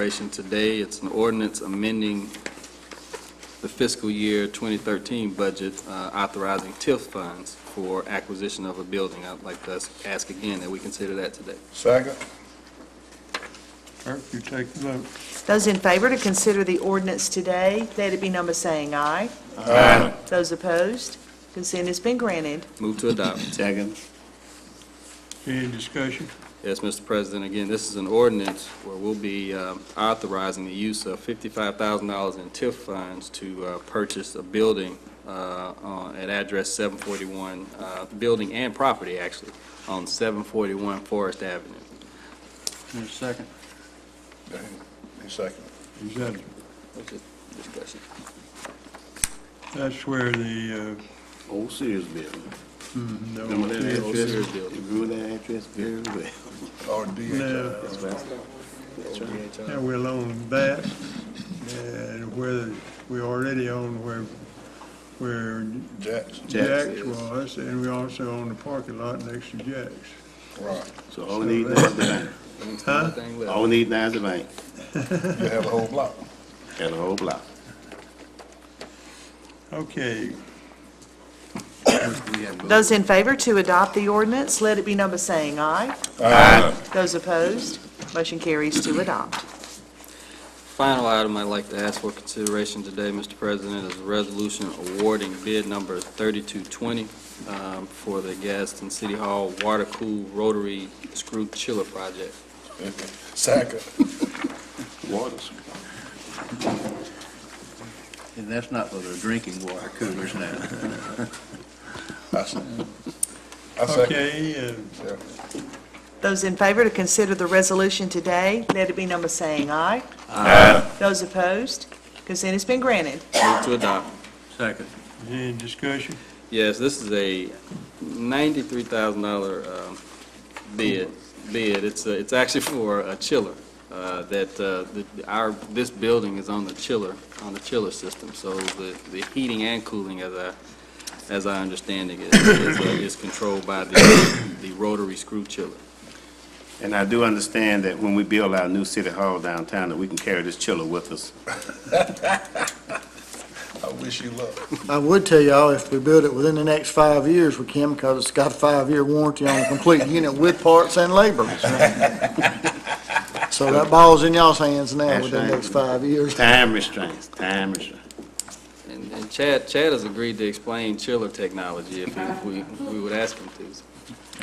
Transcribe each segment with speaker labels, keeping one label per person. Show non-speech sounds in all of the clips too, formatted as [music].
Speaker 1: consideration today. It's an ordinance amending the fiscal year 2013 budget uh, authorizing TIF funds for acquisition of a building. I'd like to ask- ask again that we consider that today.
Speaker 2: Second.
Speaker 3: Clerk, you take the vote.
Speaker 4: Those in favor to consider the ordinance today, let it be number saying aye. Aye. Those opposed, consent has been granted.
Speaker 1: Move to adopt.
Speaker 2: Second.
Speaker 3: Any discussion?
Speaker 1: Yes, Mr. President, again, this is an ordinance where we'll be um, authorizing the use of $55,000 in TIF funds to uh, purchase a building uh, on- at address 741, uh, building and property, actually, on 741 Forest Avenue.
Speaker 3: There's a second.
Speaker 2: Second.
Speaker 3: Is that,
Speaker 1: Which is discussion.
Speaker 3: that's where the,
Speaker 5: Old Sears building.
Speaker 3: uh, mm, the
Speaker 5: Remember
Speaker 3: old
Speaker 5: that
Speaker 1: Old
Speaker 3: TIF,
Speaker 5: address?
Speaker 1: Sears building.
Speaker 5: Remember that address very well.
Speaker 2: Or
Speaker 3: No.
Speaker 2: DHI.
Speaker 3: yeah, we'll own that, and where, the- we already own where, where
Speaker 2: Jackson.
Speaker 3: Jack's was, and we also own the parking lot next to Jack's.
Speaker 2: Right.
Speaker 5: So all we need now is the bank.
Speaker 3: Huh?
Speaker 1: Thing
Speaker 5: All
Speaker 1: left.
Speaker 5: we need now is the bank
Speaker 2: You have a whole block.
Speaker 5: and the whole block.
Speaker 3: Okay,
Speaker 4: Those in favor to adopt the ordinance, let it be number saying aye.
Speaker 2: Aye.
Speaker 4: Those opposed, motion carries to adopt.
Speaker 1: Final item I'd like to ask for consideration today, Mr. President, is a resolution awarding bid number 3220 um, for the Gaston City Hall Water Cool Rotary Screw Chiller Project.
Speaker 2: Second.
Speaker 5: Waters.
Speaker 6: And that's not for the drinking water coolers now.
Speaker 2: I se- I second.
Speaker 3: okay, uh,
Speaker 2: Yeah.
Speaker 4: Those in favor to consider the resolution today, let it be number saying aye. Aye. Those opposed, consent has been granted.
Speaker 1: Move to adopt.
Speaker 6: Second.
Speaker 3: any discussion?
Speaker 1: Yes, this is a ninety-three thousand dollar um, bid, bid. It's, uh, it's actually for a chiller, uh, that, uh, that our, this building is on the chiller, on the chiller system, so the, the heating and cooling, as I, as I understand it, is, is, uh, is controlled by the, the rotary screw chiller.
Speaker 5: And I do understand that when we build our new city hall downtown, that we can carry this chiller with us.
Speaker 2: I wish you luck.
Speaker 7: I would tell y'all, if we build it within the next five years, we can, because it's got a five-year warranty on the complete [laughs] unit with parts and labor. So that ball's in y'all's hands now within the next five years.
Speaker 5: Time restraints, time restraints.
Speaker 1: And and Chad, Chad has agreed to explain chiller technology if we- if we, if we would ask him to.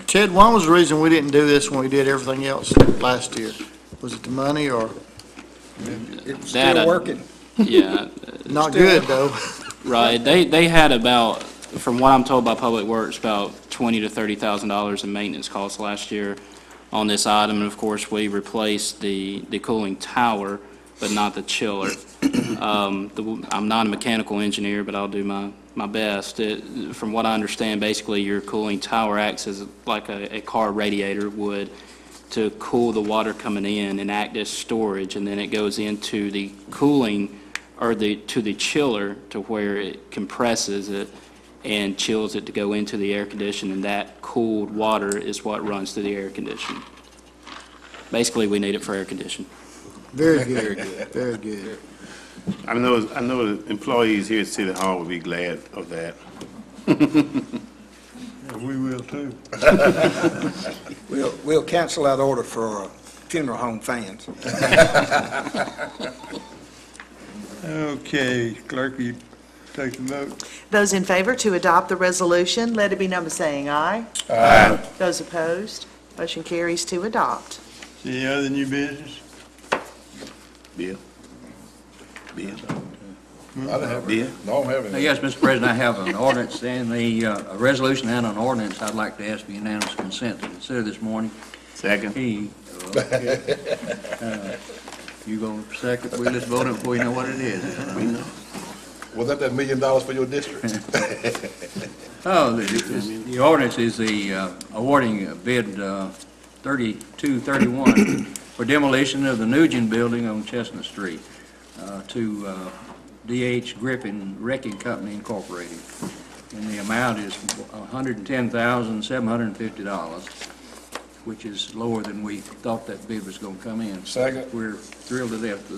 Speaker 7: Ted, one was the reason we didn't do this when we did everything else last year. Was it the money or
Speaker 8: It's
Speaker 9: That I-
Speaker 8: still working.
Speaker 9: Yeah,
Speaker 7: not [laughs] good, though?
Speaker 9: right. They, they had about, from what I'm told by Public Works, about twenty to thirty thousand dollars in maintenance costs last year on this item. And of course, we replaced the, the cooling tower, but not the chiller. Um, the- I'm not a mechanical engineer, but I'll do my, my best. It- From what I understand, basically, your cooling tower acts as like a, a car radiator would to cool the water coming in and act as storage, and then it goes into the cooling, or the, to the chiller, to where it compresses it and chills it to go into the air conditioner, and that cooled water is what runs through the air conditioner. Basically, we need it for air conditioning.
Speaker 7: Very good, very good.
Speaker 5: I know, I know the employees here at City Hall would be glad of that.
Speaker 3: Yeah, Uh, We will too.
Speaker 8: We'll, we'll cancel that order for uh, funeral home fans.
Speaker 3: Okay, clerk, you take the vote.
Speaker 4: Those in favor to adopt the resolution, let it be number saying aye.
Speaker 2: Aye.
Speaker 4: Those opposed, motion carries to adopt.
Speaker 3: Any other new business?
Speaker 5: Bill?
Speaker 2: I
Speaker 5: Bill?
Speaker 2: didn't have
Speaker 5: Bill?
Speaker 2: it. Don't have
Speaker 8: Uh,
Speaker 2: it.
Speaker 8: Yes, Mr. President, I have an ordinance and the, uh, a resolution and an ordinance I'd like to ask for unanimous consent to consider this morning. uh,
Speaker 5: Second?
Speaker 8: He, [laughs] uh,
Speaker 6: You gonna second, we just voted before you know what it is.
Speaker 5: We know.
Speaker 2: Was that that million dollars for your district?
Speaker 8: oh, the- the the ordinance is the uh, awarding bid uh, 3231 for demolition of the Nugent Building on Chestnut Street uh, to uh, DH Griffin Wrecking Company Incorporated. And the amount is $110,750. which is lower than we thought that bid was going to come in.
Speaker 2: Second.
Speaker 8: We're thrilled to death